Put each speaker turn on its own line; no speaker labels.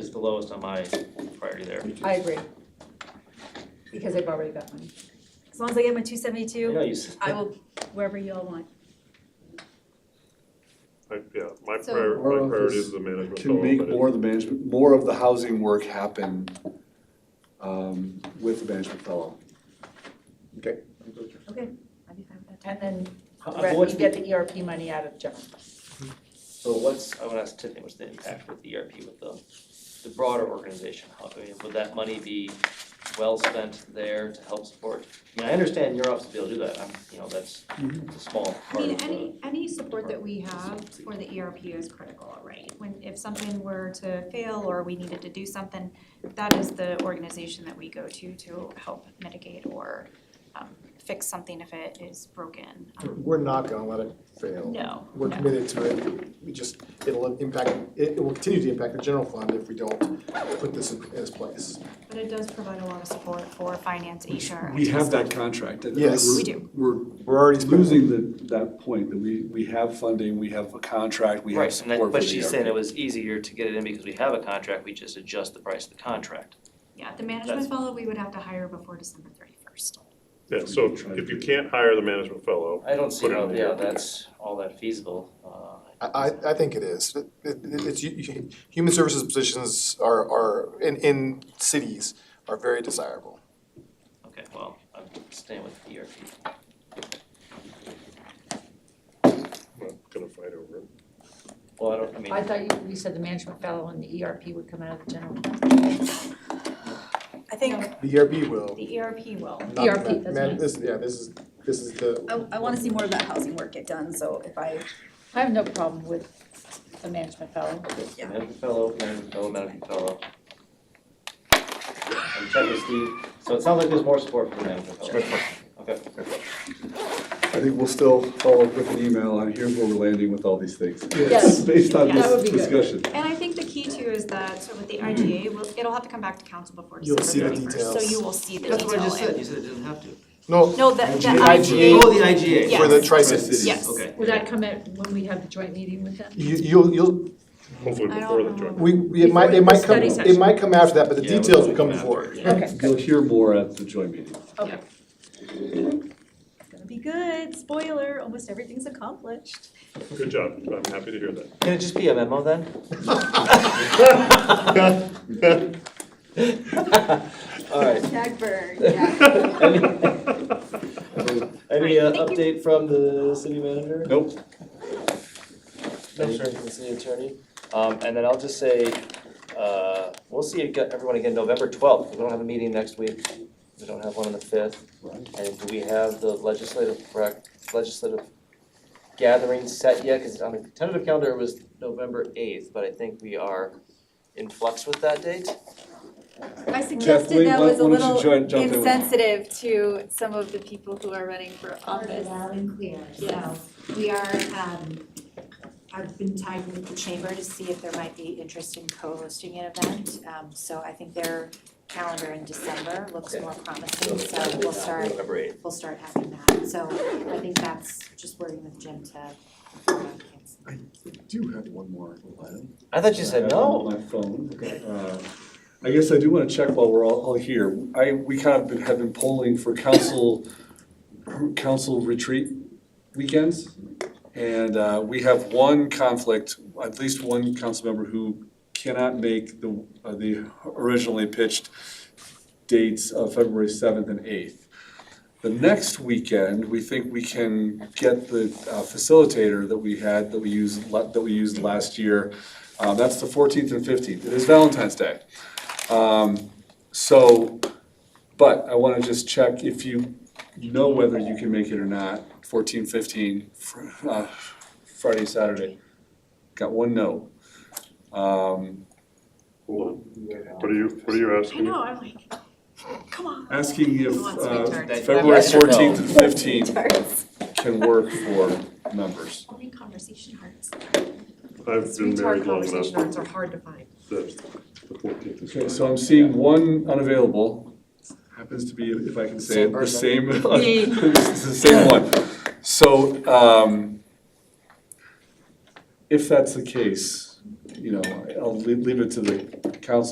is the lowest on my priority there.
I agree. Because I've already got mine.
As long as I get my two
I
seventy-two,
know you said
I will, wherever you all want.
I- Yeah, my
So-
prior,
Or if
my priority
it's
is the management.
To
fellow,
make
but
more of the management, more of the housing work happen um, with the management fellow.
I'd be fine with that.
And then
How-
the
uh,
rest-
what's
you
the-
get the ERP money out of general.
So what's, I would ask Tiffany, what's the impact with the ERP with the, the broader organization? How, I mean, would that money be well spent there to help support? I mean, I understand your office to be able to do that, I'm, you know, that's a small
I
part
mean,
of the,
any, any support that we have for the ERP is critical, right? When, if something were to fail or we needed to do something, that is the organization that we go to to help mitigate or um, fix something if it is broken. Um,
We're not gonna let it fail.
No,
We're
no.
committed to it. We just, it'll impact, it it will continue to impact the general fund if we don't put this in its place.
But it does provide a lot of support for finance, HR.
We have that contract. and
Yes.
we're-
We do.
We're
We're already
losing the, that point that we, we have funding, we have a contract, we have
right, and that,
support for the. E
but she's saying
ERP.
it was easier to get it in because we have a contract, we just adjust the price of the contract.
Yeah, the management fellow, we would have to hire before December thirty-first.
Yeah, so if you can't hire the management fellow,
I don't see
Put it in
how,
the
yeah,
ERP.
that's all that feasible, uh.
I, I- I think it is. It- it- it's, you- you- human services positions are, are, in, in cities, are very desirable.
Okay, well, I'm staying with E ERP.
I'm not gonna fight over it.
Well, I don't, I mean.
I thought you, you said the management fellow and the ERP would come out of the general.
I think,
The ERP will,
The
E
ERP will.
not the
ERP,
man-
that's
man-
right.
This, yeah, this is, this is the.
Oh.
I, I wanna see more of that housing work get done, so if I,
I have no problem with the management fellow.
Yeah.
Medical fellow, medical fellow, medical fellow. And check with Steve, so it sounds like there's more support for the medical fellow. Okay.
I think we'll still follow up with an email on here's where we're landing with all these things.
Yes.
Based on
Yeah.
That would
this
be good.
discussion.
And I think the key too is that, so with the IGA, we'll- it'll have to come back to council before
You'll
December
see the
thirty-first. So
details.
you will see the detail. and-
you said it doesn't have to.
No,
No, the, the
IGA.
the
IGA,
IGA.
for the
yes.
tri-cities.
Yes.
Okay.
Would that come at, when we have the joint meeting with them?
You, you'll, you'll,
Hopefully
I
before
don't
the joint.
know.
we, we- it might, it might
Before
come,
the study
it might come after that, but the
Yeah,
details will
we'll
come
come
before.
Okay,
You'll hear more at the joint meeting.
okay.
it's gonna be good, spoiler, almost everything's accomplished.
Good job, I'm happy to hear that.
Can it just be a memo then? Alright,
Dagberg, yeah.
any, any uh,
Thank you.
update from the city manager?
Nope.
Any from the city attorney? Um, and then I'll just say, uh, we'll see aga- everyone again November twelfth, we don't have a meeting next week, we don't have one on the fifth. And do we have the legislative rec, legislative gathering set yet? Cause on the tentative calendar it was November eighth, but I think we are in flux with that date.
I
wait,
suggested that
why-
was a
why don't you
little
join- jump in with-
insensitive to some of the people who are running for
Heard it
office.
loud and clear, so
Yes.
we are, um, I've been tied with the chamber to see if there might be interest in co-hosting an event. Um, so I think their calendar in December looks
Okay.
more promising, so we'll start,
November eighth.
we'll start having that. So I think that's just working with Jim to, uh,
Do have one more item.
I thought you
I
said
have on
no.
My phone. Uh, I guess I do want to check while we're all, all here. I, we kind of been- have been polling for council, council retreat weekends. And uh, we have one conflict, at least one council member who cannot make the, uh, the originally pitched dates of February seventh and eighth. The next weekend, we think we can get the uh, facilitator that we had, that we used, la- that we used last year. Uh, That's the fourteenth and fifteenth. It is Valentine's Day. Um, So, but I want to just check if you know whether you can make it or not. Fourteen, fifteen, fr- uh, Friday, Saturday. Got one no. Um,
Hold on. What are you, what are you
I
asking?
know, I'm like, come on.
Asking if
Who wants to be
uh,
tardy?
February
Yes or no?
fourteenth and fifteenth
Darts.
can work for members.
Only conversation hearts.
I've been married long enough
are hard to find.
that the fourteenth is.
Okay,
fine.
so I'm seeing one unavailable, happens to be, if I can say it, the same, it's the same one. So, um, if that's the case, you know, I'll leave, leave it to the council